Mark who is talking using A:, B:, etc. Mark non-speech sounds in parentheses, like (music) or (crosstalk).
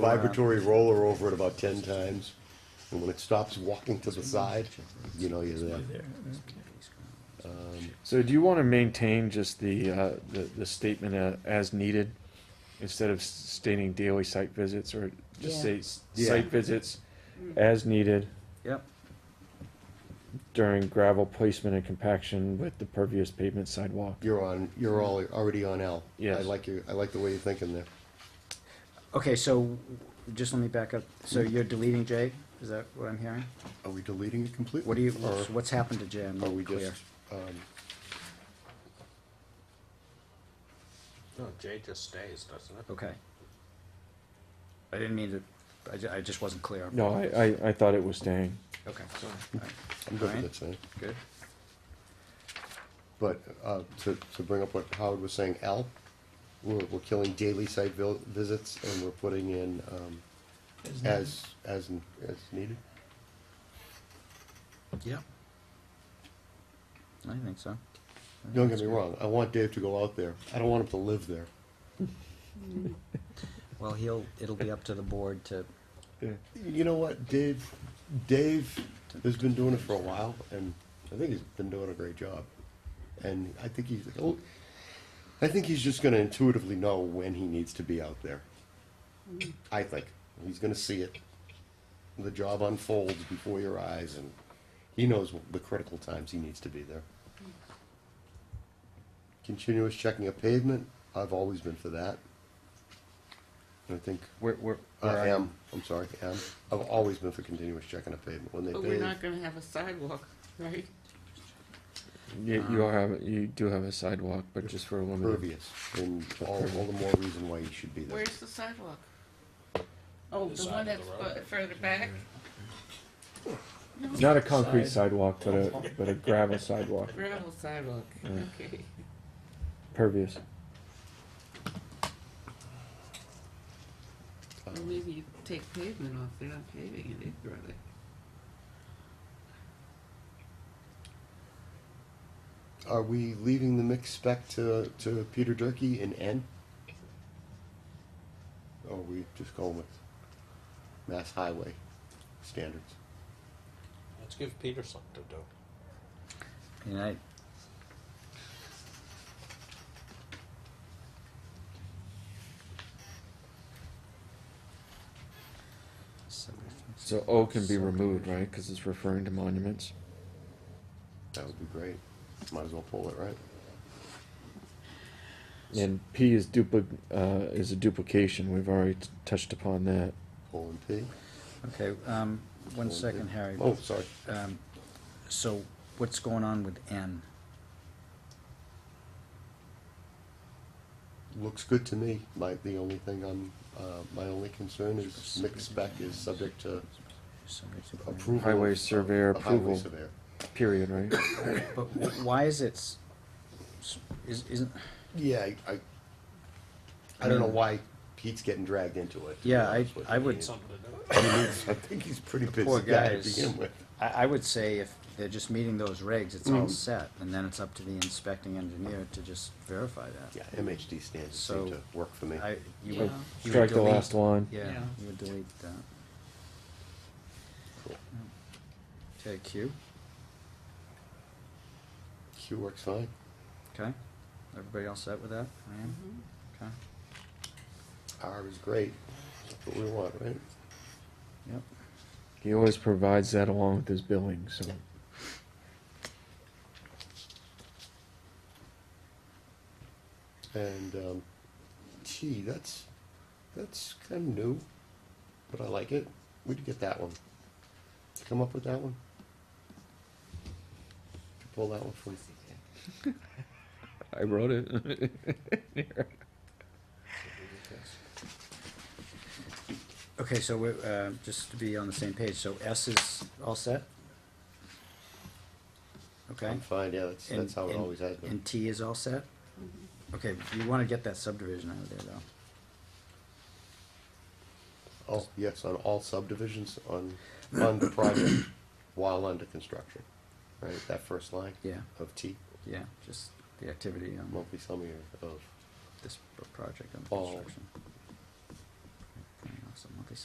A: vibratory roller over it about ten times, and when it stops walking to the side, you know you're there.
B: So do you want to maintain just the, uh, the, the statement uh, as needed? Instead of s- stating daily site visits or just
C: Yeah.
B: say s-
A: Yeah.
B: site visits as needed
D: Yep.
B: during gravel placement and compaction with the pervious pavement sidewalk?
A: You're on, you're all already on L. I
B: Yes.
A: like your, I like the way you're thinking there.
D: Okay, so just let me back up. So you're deleting J? Is that what I'm hearing?
A: Are we deleting it completely?
D: What do you,
A: Or
D: what's- what's happened to J? I'm
A: are
D: not
A: we
D: clear.
A: just, um,
E: No, J just stays, doesn't it?
D: Okay. I didn't mean to, I ju- I just wasn't clear.
B: No, I, I, I thought it was staying.
D: Okay,
A: Mm. I'm good with
D: Alright.
A: that, saying.
D: good.
A: But, uh, to, to bring up what Howard was saying, L, we're, we're killing daily site vil- visits and we're putting in, um, as, as, as needed.
D: Yeah. I think so.
A: Don't get me wrong, I want Dave to go out there. I don't want him to live there.
D: Well, he'll, it'll be up to the board to,
A: You know what, Dave, Dave has been doing it for a while and I think he's been doing a great job. And I think he's, oh, he'll- I think he's just gonna intuitively know when he needs to be out there. I think. He's gonna see it. The job unfolds before your eyes and he knows the critical times he needs to be there. Continuous checking of pavement, I've always been for that. And I think
B: Where, where?
A: I am, I'm sorry, am. I've always been for continuous checking of pavement. When they
C: But we're
A: pave,
C: not gonna have a sidewalk, right?
B: You, you all have, you do have a sidewalk, but just for a limited.
A: pervious, and all, all the more reason why you should be there.
C: Where's the sidewalk? Oh,
E: The
C: the
E: side
C: one
E: of
C: that's
E: the
C: fu- further back?
B: Not a concrete sidewalk, but a, but a gravel sidewalk,
C: Gravel sidewalk, okay.
B: pervious.
A: Uh,
C: Well, maybe you take pavement off, they're not paving it either, are they?
A: Are we leaving the mix spec to, to Peter Durkee in N? Or are we just going with Mass Highway standards?
E: Let's give Peter something to do.
D: you know,
B: So O can be removed, right? Because it's referring to monuments.
A: That would be great. Might as well pull it, right?
B: And P is dupli- uh, is a duplication. We've already t- touched upon that.
A: Pull and P.
D: okay, um, one
A: Pull and P.
D: second, Harry.
A: Oh, sorry.
D: Um, so what's going on with N?
A: Looks good to me. My, the only thing I'm, uh, my only concern is mix spec is subject to
D: Somebody's-
A: approval.
B: Highway
A: of-
B: surveyor
A: of highway
B: approval.
A: surveyor.
B: Period, right?
D: But wh- why is it, s- s- is- isn't,
A: Yeah, I, I, I don't know why Pete's getting dragged into it. to be
D: Yeah, I-
A: honest with
D: I
A: you.
D: would-
E: Something to do.
A: I mean, he's- I think he's a pretty
D: poor
A: busy
D: guy
A: guy to
D: is-
A: begin with.
D: I, I would say if they're just meeting those regs, it's
B: Mm-hmm.
D: all set, and then it's up to the inspecting engineer to just verify
A: Yeah,
D: that.
A: MHD standards seem
D: So,
A: to work for me.
D: I, you
C: Yeah.
D: would, you would
B: Strike the last
D: delete,
B: line.
D: yeah,
C: Yeah.
D: you would delete that.
A: Cool.
D: Okay, Q,
A: Q works fine.
D: okay, everybody all set with that, I am, okay,
A: R is great. That's what we want, right?
D: yep.
B: He always provides that along with his billing. So
A: And, um, T, that's, that's kind of new, but I like it. Where'd you get that one? Did you Come up with that one? Pull that one from,
B: I wrote it. (laughs)
D: Okay, so we, uh, just to be on the same page, so S is all set? Okay.
A: I'm fine, yeah, that's,
D: And-
A: Um, that's how it
D: and-
A: always has been.
D: And T is all set? Okay, you wanna get that subdivision out of there though.
A: Oh, yes, on all subdivisions on, on the project while under construction, right? That first line
D: Yeah,
A: of T,
D: yeah, just the activity on
A: monthly summary of
D: this pro- project on
A: all
D: construction.